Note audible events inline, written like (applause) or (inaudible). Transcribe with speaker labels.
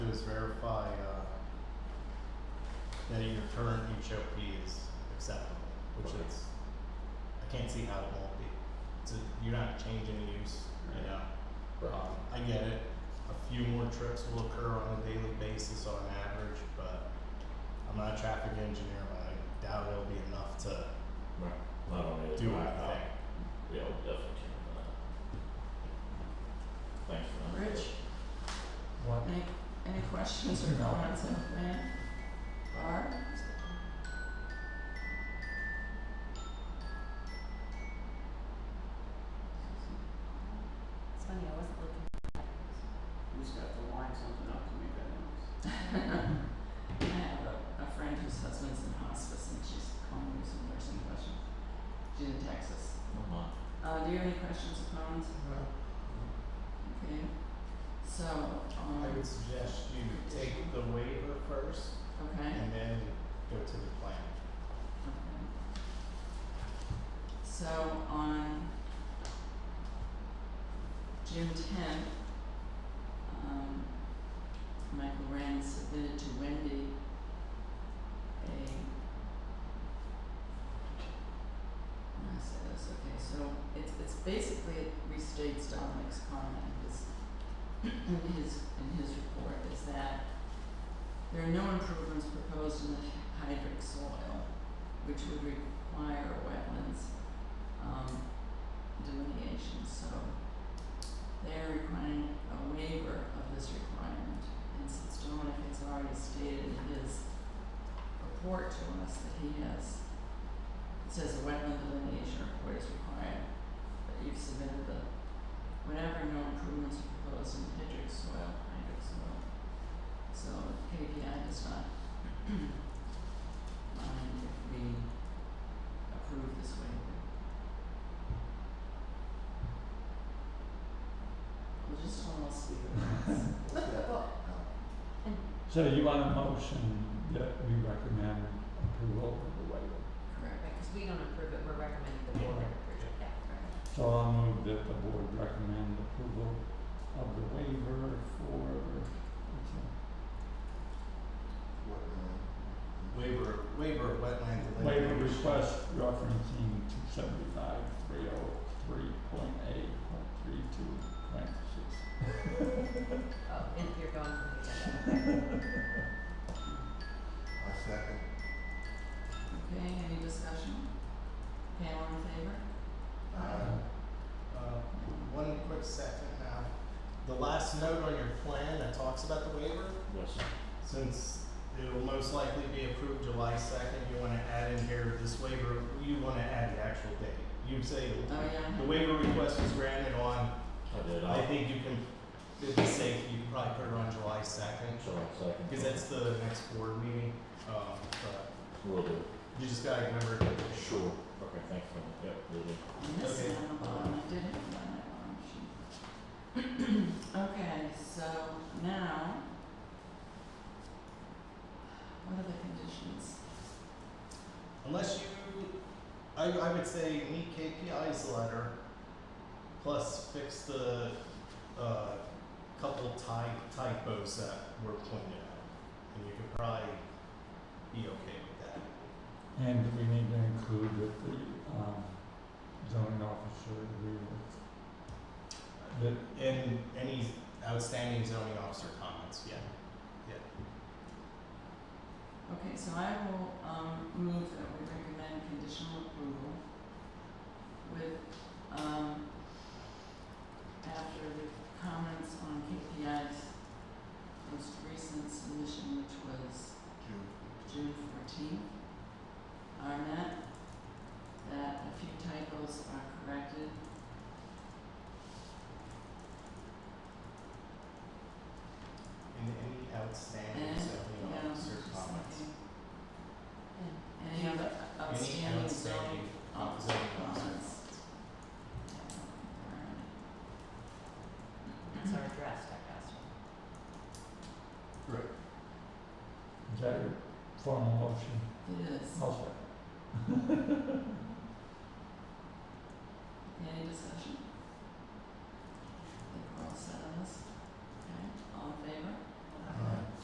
Speaker 1: uh, that your current HOP is acceptable, which
Speaker 2: Okay.
Speaker 1: is, I can't see how it won't be. It's a, you're not changing the use, you know? Um, I get it, a few more trips will occur on a daily basis on average, but I'm not a traffic engineer, but I doubt it'll be enough to
Speaker 2: Right. Not only is
Speaker 1: do
Speaker 2: it
Speaker 1: anything.
Speaker 2: blacktop, yeah, we definitely can, uh. Thanks for that.
Speaker 3: Rich, any, any questions or comments on the plan? Barb?
Speaker 4: It's funny, I wasn't looking.
Speaker 5: You just have to line something up to make that noise.
Speaker 3: (laughs) I have a, a friend whose husband's in hospice and she's calling me some nursing questions. She's in Texas.
Speaker 2: Come on.
Speaker 3: Uh, do you have any questions or comments? Okay, so, um,
Speaker 1: I would suggest you take the waiver first
Speaker 3: okay, okay.
Speaker 1: and then go to the plan.
Speaker 3: So on June tenth, um, Michael Rand submitted to Wendy a how do I say this, okay, so it's it's basically it restates Dominic's comment in his in his in his report is that there are no improvements proposed in the hydric soil, which would require wetlands um delineation, so they're requiring a waiver of this requirement. And since Dominic has already stated in his report to us that he has it says a wetland delineation report is required, but you've submitted the, whenever no improvements are proposed in hydric soil, hydric soil. So KPI does not (clears throat) mind if we approve this waiver. We'll just almost leave it as.
Speaker 6: So you want a motion that we recommend approval of the waiver?
Speaker 3: Correct.
Speaker 4: Right, 'cause we don't approve it, we're recommending the board
Speaker 6: Yeah.
Speaker 4: approve it, yeah, right.
Speaker 6: So I'll move that the board recommend approval of the waiver for, what's that?
Speaker 1: Waiver, waiver of wetland delineation.
Speaker 6: waiver request referencing two seventy-five, three oh three point eight, point three two, parentheses.
Speaker 4: Oh, and you're going from the agenda,
Speaker 3: Okay, any discussion? Okay, all in favor?
Speaker 1: Uh, one quick second now. The last note on your plan that talks about the waiver,
Speaker 2: Yes.
Speaker 1: since it will most likely be approved July second, you wanna add in here this waiver, you wanna add the actual date. You say
Speaker 3: Oh, yeah.
Speaker 1: the waiver request was granted on,
Speaker 2: I did,
Speaker 1: I
Speaker 2: I,
Speaker 1: think you can, it'd be safe, you can probably put it on July second,
Speaker 2: so I second.
Speaker 1: cause that's the next board meeting, um, but
Speaker 2: Will do.
Speaker 1: you just gotta remember to.
Speaker 2: Sure. Okay, thanks for that, yep, will do.
Speaker 3: On this
Speaker 1: Okay.
Speaker 3: one, um, I did have one I wanted to- Okay, so now, what are the conditions?
Speaker 1: Unless you, I, I would say meet KPI's letter, plus fix the, uh, couple ty- typos that were pointed out. And you could probably be okay with that.
Speaker 6: And we need to include that the, um, zoning officer agree with, that
Speaker 1: And any outstanding zoning officer comments, yeah.
Speaker 3: Okay, so I will, um, move that we recommend conditional approval with, um, after the comments on KPI's most recent submission, which was June fourteenth are met, that a few typos are corrected.
Speaker 1: And any outstanding
Speaker 3: And,
Speaker 1: zoning
Speaker 3: yeah,
Speaker 1: officer
Speaker 3: just
Speaker 1: comments.
Speaker 3: looking.
Speaker 4: And
Speaker 3: Any other
Speaker 1: Any
Speaker 3: outstanding
Speaker 1: outstanding
Speaker 3: zoning officer
Speaker 1: zoning officer.
Speaker 3: comments?
Speaker 4: it's our address, I guess.
Speaker 1: Right.
Speaker 6: Is that your formal motion?
Speaker 3: It is.
Speaker 6: I'll second.
Speaker 3: Any discussion?